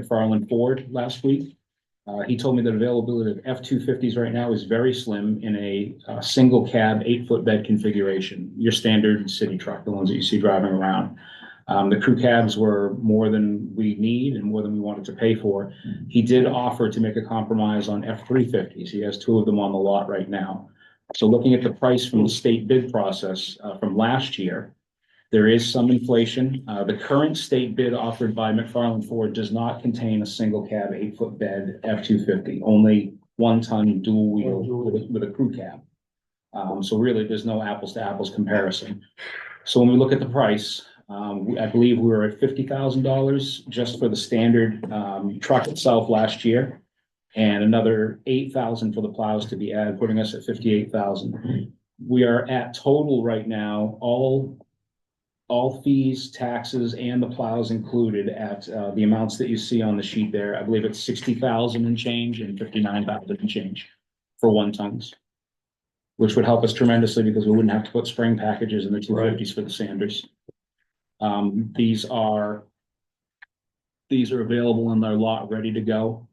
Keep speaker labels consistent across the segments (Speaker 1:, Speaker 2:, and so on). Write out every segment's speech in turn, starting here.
Speaker 1: McFarland Ford last week. Uh, he told me that availability of F two fifties right now is very slim in a, uh, single cab, eight foot bed configuration. Your standard city truck, the ones that you see driving around. Um, the crew cabs were more than we need and more than we wanted to pay for. He did offer to make a compromise on F three fifties. He has two of them on the lot right now. So looking at the price from the state bid process, uh, from last year. There is some inflation. Uh, the current state bid offered by McFarland Ford does not contain a single cab, eight foot bed F two fifty, only one ton dual wheel with, a- with a crew cab. Um, so really, there's no apples to apples comparison. So when we look at the price, um, we- I believe we were at fifty thousand dollars just for the standard, um, truck itself last year. And another eight thousand for the plows to be added, putting us at fifty-eight thousand. We are at total right now, all all fees, taxes, and the plows included at uh, the amounts that you see on the sheet there. I believe it's sixty thousand and change and fifty-nine thousand and change for one tons. Which would help us tremendously because we wouldn't have to put spring packages in the two fifties for the Sanders. Um, these are these are available in their lot, ready to go.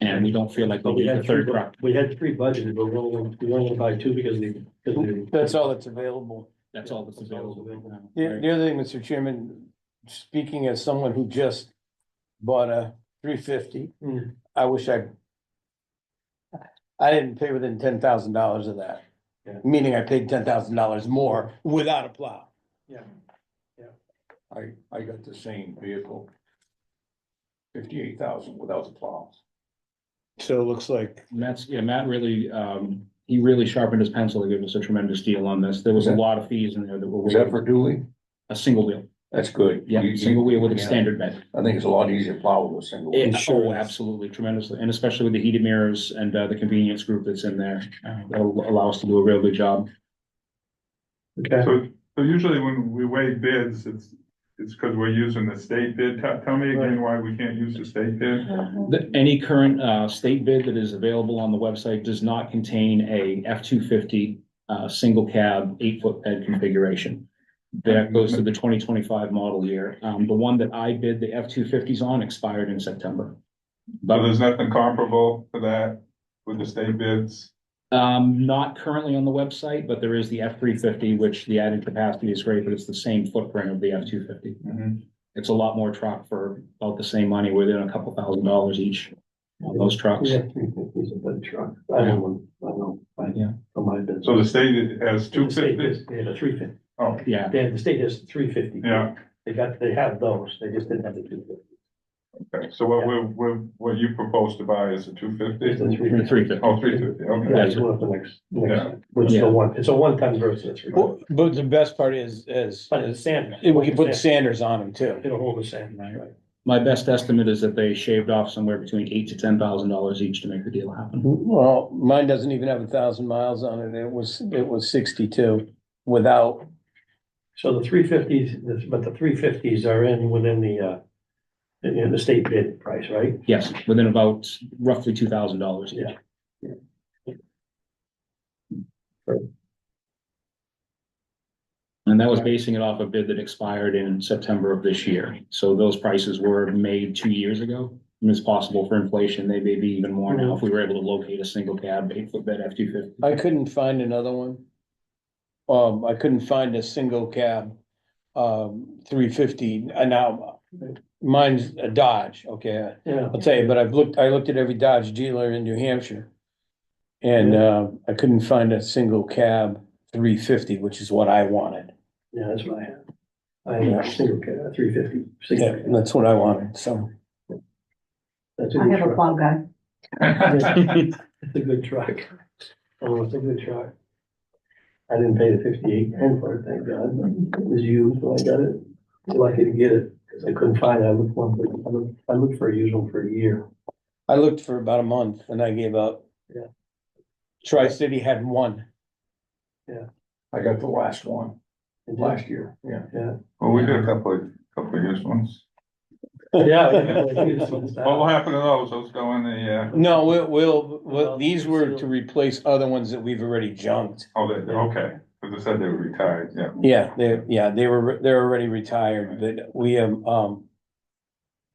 Speaker 1: And we don't feel like
Speaker 2: But
Speaker 1: they'll
Speaker 2: we
Speaker 1: be
Speaker 2: had
Speaker 1: the
Speaker 2: three,
Speaker 1: third
Speaker 2: bu-
Speaker 1: truck.
Speaker 2: we had three budgeted, but we only, we only buy two because they, because they.
Speaker 3: That's all that's available.
Speaker 1: That's all that's available. right now.
Speaker 3: The, the other thing, Mr. Chairman, speaking as someone who just bought a three fifty,
Speaker 2: Hmm.
Speaker 4: Mm.
Speaker 3: I wish I. I didn't pay within ten thousand dollars of that,
Speaker 2: Yeah.
Speaker 3: meaning I paid ten thousand dollars more without a plow.
Speaker 2: Yeah. Yeah.
Speaker 4: I, I got the same vehicle. Fifty-eight thousand without the plows.
Speaker 3: So it looks like,
Speaker 1: Matt's, yeah, Matt really, um, he really sharpened his pencil to give us a tremendous deal on this. There was a lot of fees in there that were.
Speaker 4: Was that for dually?
Speaker 1: A single wheel,
Speaker 4: That's good.
Speaker 1: yeah,
Speaker 4: You- you-
Speaker 1: single wheel with a
Speaker 4: yeah.
Speaker 1: standard bed.
Speaker 4: I think it's a lot easier to plow with a single. wheel.
Speaker 1: Yeah, Oh, absolutely tremendously, and especially with the heated mirrors and, uh, the convenience group that's in there, uh, that'll allow us to do a real good job.
Speaker 2: Okay,
Speaker 5: So, so usually when we weigh bids, it's, it's because we're using the state bid. Tell, tell me again why we can't use the state bid?
Speaker 1: The, any current, uh, state bid that is available on the website does not contain a F two fifty, uh, single cab, eight foot bed configuration. That goes to the twenty twenty-five model year. Um, the one that I bid the F two fifties on expired in September.
Speaker 5: So
Speaker 1: But,
Speaker 5: there's nothing comparable to that with the state bids?
Speaker 1: um, not currently on the website, but there is the F three fifty, which the added capacity is great, but it's the same footprint of the F two fifty.
Speaker 5: Mhm.
Speaker 1: It's a lot more truck for about the same money, within a couple thousand dollars each on those trucks.
Speaker 2: we had three fifties a bed truck, I have one, I know, I,
Speaker 1: Yeah.
Speaker 2: for my business.
Speaker 5: So the state has two
Speaker 2: The state
Speaker 5: fifty?
Speaker 2: has- They had a three fifty,
Speaker 5: Oh,
Speaker 1: Yeah,
Speaker 2: they had, the state has three fifty.
Speaker 5: yeah,
Speaker 2: They got, they have those, they just didn't have the two fifty.
Speaker 5: okay. So what we, we, what you propose to buy is a two fifty?
Speaker 2: It's a three
Speaker 1: the
Speaker 2: fifty.
Speaker 1: three fifty.
Speaker 5: Oh, three fifty, okay.
Speaker 2: Yeah, it's one of the next,
Speaker 5: Yeah.
Speaker 2: next, which is
Speaker 1: Yeah.
Speaker 2: the one, it's a one ton versus a three.
Speaker 3: Well, but the best part is, is,
Speaker 2: But it's sand.
Speaker 3: we can put Sanders on them too.
Speaker 2: It'll hold the sand, right?
Speaker 1: My best estimate is that they shaved off somewhere between eight to ten thousand dollars each to make the deal
Speaker 3: Mm-hmm.
Speaker 1: happen.
Speaker 3: Well, mine doesn't even have a thousand miles on it. It was, it was sixty-two without,
Speaker 2: So the three fifties, but the three fifties are in within the, uh, in- in the state bid price, right?
Speaker 1: Yes, within about roughly two thousand dollars each. And that was basing it off a bid that expired in September of this year. So those prices were made two years ago. And it's possible for inflation, they may be even more now if we were able to locate a single cab, eight foot bed F two fifty.
Speaker 3: I couldn't find another one. Um, I couldn't find a single cab, um, three fifty, and now mine's a Dodge, okay?
Speaker 2: Yeah.
Speaker 3: I'll tell you, but I've looked, I looked at every Dodge dealer in New Hampshire. And, uh, I couldn't find a single cab three fifty, which is what I wanted.
Speaker 2: Yeah, that's what I have. I have a single, ca- three fifty.
Speaker 3: Yeah, that's what I wanted, so.
Speaker 2: That's a
Speaker 6: I
Speaker 2: good
Speaker 6: have a
Speaker 2: truck.
Speaker 6: plow guy.
Speaker 2: It's a good truck. Oh, it's a good truck. I didn't pay the fifty-eight ten for it, thank God. but It was used when I got it. Lucky to get it, because I couldn't find it. I looked one, for- I looked, I looked for a used one for a year.
Speaker 3: I looked for about a month and I gave up.
Speaker 2: Yeah.
Speaker 3: Tri-City had one.
Speaker 4: I got the last one
Speaker 2: And then-
Speaker 4: last year, yeah.
Speaker 5: Well, we did a couple, of couple of used ones.
Speaker 2: Yeah. yeah, used ones.
Speaker 5: What will happen to those? Those go in the, uh,
Speaker 3: No, we'll, we'll, we'll- these were to
Speaker 2: Sealed.
Speaker 3: replace other ones that we've already junked.
Speaker 5: oh, they, okay, because I said they were retired, yeah.
Speaker 3: Yeah, they, yeah, they were, they're already retired, but we have, um,